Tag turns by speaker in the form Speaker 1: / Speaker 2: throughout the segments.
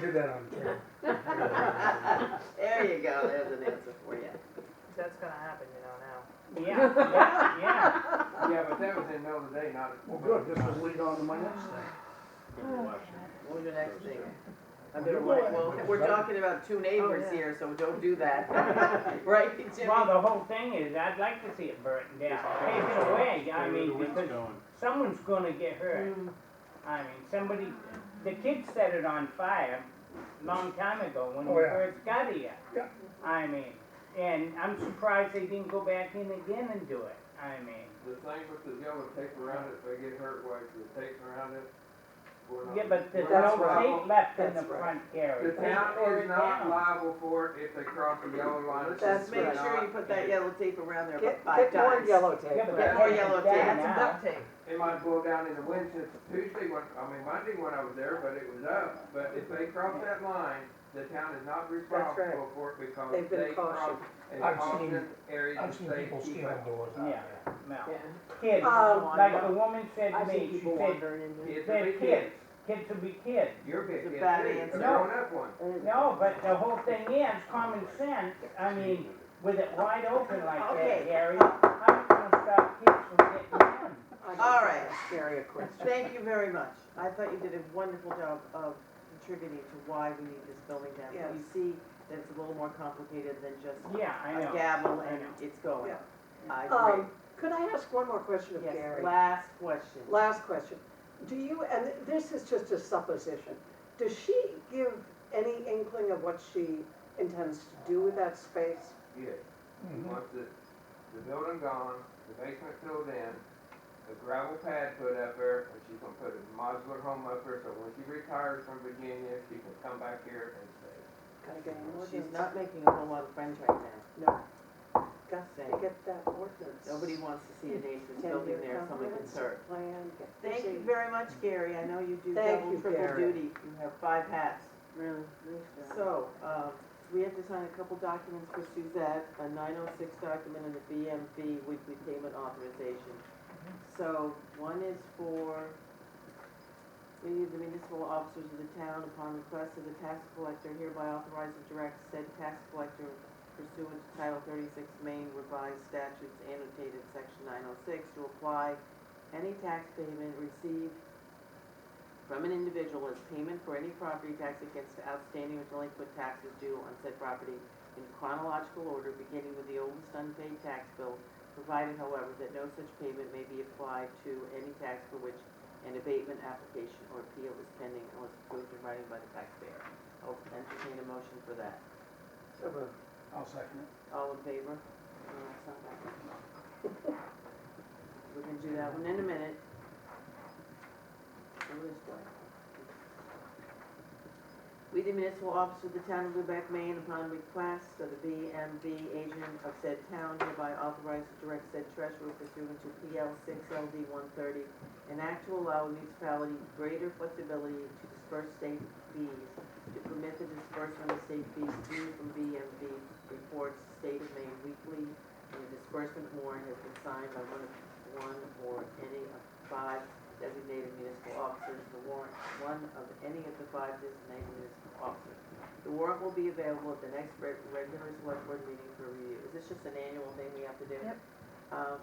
Speaker 1: do that on camera.
Speaker 2: There you go, there's an answer for you.
Speaker 3: That's gonna happen, you know, now.
Speaker 4: Yeah, yeah, yeah.
Speaker 5: Yeah, but that was in Notre Dame, not. at-
Speaker 1: Well, good, this will lead on to my next thing.
Speaker 2: What was your next thing? I
Speaker 1: You
Speaker 2: better
Speaker 1: go
Speaker 2: wait,
Speaker 1: ahead.
Speaker 2: well, we're talking about two neighbors
Speaker 6: Oh,
Speaker 3: yeah.
Speaker 2: here, so don't do that. Right, Jimmy?
Speaker 4: Well, the whole thing is, I'd like to see it burnt down, take it away, I mean, because someone's gonna get hurt. I mean, somebody, the kids set it on fire long time ago when we
Speaker 1: Oh, yeah.
Speaker 4: first got here.
Speaker 1: Yeah.
Speaker 4: I mean, and I'm surprised they didn't go back in again and do it, I mean.
Speaker 5: The thing with the yellow tape around it, if they get hurt, why, the tape around it? we're not-
Speaker 4: Yeah, but there's
Speaker 5: we're not
Speaker 4: no
Speaker 5: liable.
Speaker 4: tape left in the
Speaker 2: That's right.
Speaker 4: front
Speaker 5: The
Speaker 4: carriage.
Speaker 5: town
Speaker 4: Tear it
Speaker 5: is not
Speaker 4: down.
Speaker 5: liable for it if they cross the yellow line. It's
Speaker 2: Just
Speaker 5: just
Speaker 2: make sure
Speaker 5: not-
Speaker 2: you put that yellow tape around there
Speaker 6: Get,
Speaker 2: about five times.
Speaker 6: get more yellow tape.
Speaker 4: Yeah,
Speaker 2: Get
Speaker 4: but that
Speaker 2: more
Speaker 4: thing is
Speaker 2: yellow tape.
Speaker 4: down
Speaker 2: oh, That's
Speaker 4: now.
Speaker 3: Duct tape.
Speaker 5: It might blow down in the wind since Tuesday, when, I mean Monday when I was there, but it was up. But if they cross that line, the town is not
Speaker 6: right.
Speaker 5: responsible for it because
Speaker 6: They've been
Speaker 5: they cross
Speaker 6: cautioned.
Speaker 5: a
Speaker 1: I've
Speaker 5: caution
Speaker 1: seen-
Speaker 5: area to
Speaker 1: I've seen
Speaker 5: stay
Speaker 1: people
Speaker 5: keep
Speaker 1: stealing
Speaker 5: out.
Speaker 1: doors out
Speaker 4: Yeah,
Speaker 1: there.
Speaker 4: no.
Speaker 6: Yeah.
Speaker 4: Kids,
Speaker 2: Oh,
Speaker 6: Um,
Speaker 4: like the woman said to
Speaker 6: I've
Speaker 4: me,
Speaker 6: seen
Speaker 4: she
Speaker 6: people
Speaker 4: said,
Speaker 6: wandering in there.
Speaker 5: Kids
Speaker 4: They're
Speaker 5: are big
Speaker 4: kids.
Speaker 5: kids.
Speaker 4: kids will be kids.
Speaker 5: You're big
Speaker 2: It's a
Speaker 5: kids,
Speaker 2: bad
Speaker 5: too.
Speaker 2: answer.
Speaker 5: A grown up one.
Speaker 4: No, but the whole thing is common sense, I mean, with it wide open like
Speaker 2: Okay.
Speaker 4: that, Gary, how you gonna stop kids from getting in?
Speaker 6: I
Speaker 2: All
Speaker 6: can
Speaker 2: right.
Speaker 6: ask Gary a question.
Speaker 2: Thank you very much. I thought you did a wonderful job of contributing to why we need this building down. here. You
Speaker 6: Yes.
Speaker 2: see that it's a little more complicated than just
Speaker 4: Yeah, I
Speaker 2: a
Speaker 4: know.
Speaker 2: gavel
Speaker 4: I
Speaker 2: and
Speaker 4: know. Oh,
Speaker 2: it's going.
Speaker 6: Yeah.
Speaker 2: I agree.
Speaker 6: Um, could I ask one more question of Gary?
Speaker 2: Yes, last question.
Speaker 6: Last question. Do you, and this is just a supposition, does she give any inkling of what she intends to do with that space?
Speaker 5: Yes.
Speaker 2: Mm-hmm.
Speaker 1: Mhm.
Speaker 5: Once the, the building gone, the basement filled in, a gravel pad put up there, and she's gonna put a modular home up there, so when she retires from Virginia, she can come back here and stay.
Speaker 6: Gotta get an
Speaker 2: She's
Speaker 6: ordinance.
Speaker 2: not making a whole lot of friends right now.
Speaker 6: No,
Speaker 2: Just
Speaker 6: gotta
Speaker 2: saying.
Speaker 6: get that ordinance.
Speaker 2: Nobody wants to see a dangerous
Speaker 6: Ten-year
Speaker 2: building there if someone gets
Speaker 6: comprehensive
Speaker 2: hurt.
Speaker 6: Plan, get busy.
Speaker 2: Thank you very much, Gary. I know you do
Speaker 6: Thank
Speaker 2: double,
Speaker 6: you,
Speaker 2: triple
Speaker 6: Gary.
Speaker 2: duty. You have five hats.
Speaker 6: Really, nice job.
Speaker 2: So, um, we have to sign a couple documents for Suzette, a nine oh six document and a BMV weekly payment authorization. So, one is for, we need the municipal officers of the town upon request of the tax collector hereby authorize and direct said tax collector pursuant to Title thirty-six Maine revised statutes annotated section nine oh six to apply any tax payment received from an individual as payment for any property tax against outstanding or delinquent taxes due on said property in chronological order, beginning with the oldest unpaid tax bill, provided however that no such payment may be applied to any tax for which an abatement application or appeal is pending unless approved in writing by the taxpayer. I'll entertain a motion for that.
Speaker 1: So moved. I'll second it.
Speaker 2: All in favor? No, that's not that one. We can do that one in a minute. Go this way. We, the municipal officer of the town of Lubec, Maine, upon request of the BMV agent of said town hereby authorized to direct said treasurer pursuant to PL six LD one thirty, an act to allow a municipality greater flexibility to disperse state fees to permit the disbursement of state fees due from BMV reports to State of Maine weekly, and the disbursement warrant has been signed by one of, one or any of five designated municipal officers, the warrant, one of any of the five designated municipal officers. The warrant will be available at the next reg- regular select board meeting for review. Is this just an annual thing we have to do?
Speaker 3: Yep.
Speaker 2: Um,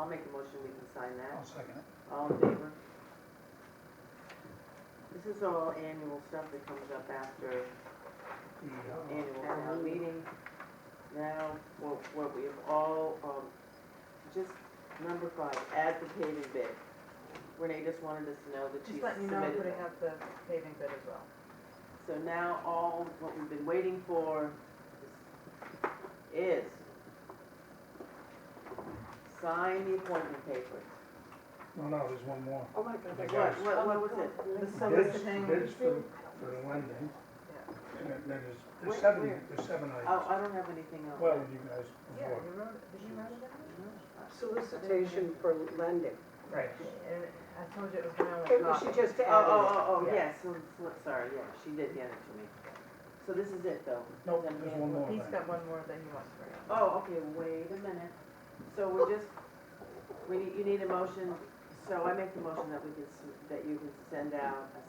Speaker 2: I'll make a motion, we can sign that.
Speaker 1: I'll second it.
Speaker 2: All in favor? This is all annual stuff that comes up after
Speaker 1: The,
Speaker 3: Oh,
Speaker 1: uh,
Speaker 2: annual town meeting. Now, what, what we have all, um, just number five, add the paving bid. Renee just wanted us to know that she's
Speaker 3: Just letting you know, I'm putting
Speaker 2: submitted that.
Speaker 3: up the paving bid as well.
Speaker 2: So now all, what we've been waiting for is sign the appointment papers.
Speaker 1: No, no, there's one more.
Speaker 6: Oh my God.
Speaker 1: The
Speaker 2: What,
Speaker 1: guys,
Speaker 2: what, what was it?
Speaker 6: Oh,
Speaker 3: The
Speaker 1: bids,
Speaker 3: soliciting.
Speaker 1: bids for, for the lending. And then there's,
Speaker 2: Where-
Speaker 1: there's seven,
Speaker 2: where?
Speaker 1: there's seven
Speaker 2: Oh,
Speaker 1: items.
Speaker 2: I don't have anything else.
Speaker 1: Well, you guys,
Speaker 3: Yeah,
Speaker 1: before.
Speaker 3: you wrote, it- did you write it down?
Speaker 6: Solicitation for lending.
Speaker 3: Right. And I told you it was my own.
Speaker 6: It was,
Speaker 3: copy.
Speaker 6: she just
Speaker 2: Oh, oh,
Speaker 6: added it.
Speaker 2: oh, oh,
Speaker 3: Yeah.
Speaker 2: yes, so- so- sorry, yeah, she did hand it to me. So this is it, though?
Speaker 1: Nope, there's one more
Speaker 3: He's
Speaker 1: thing.
Speaker 3: got one more that he wants for you.
Speaker 2: Oh, okay, wait a minute. So we're just, we need, you need a motion, so I make the motion that we can, s- that you can send out a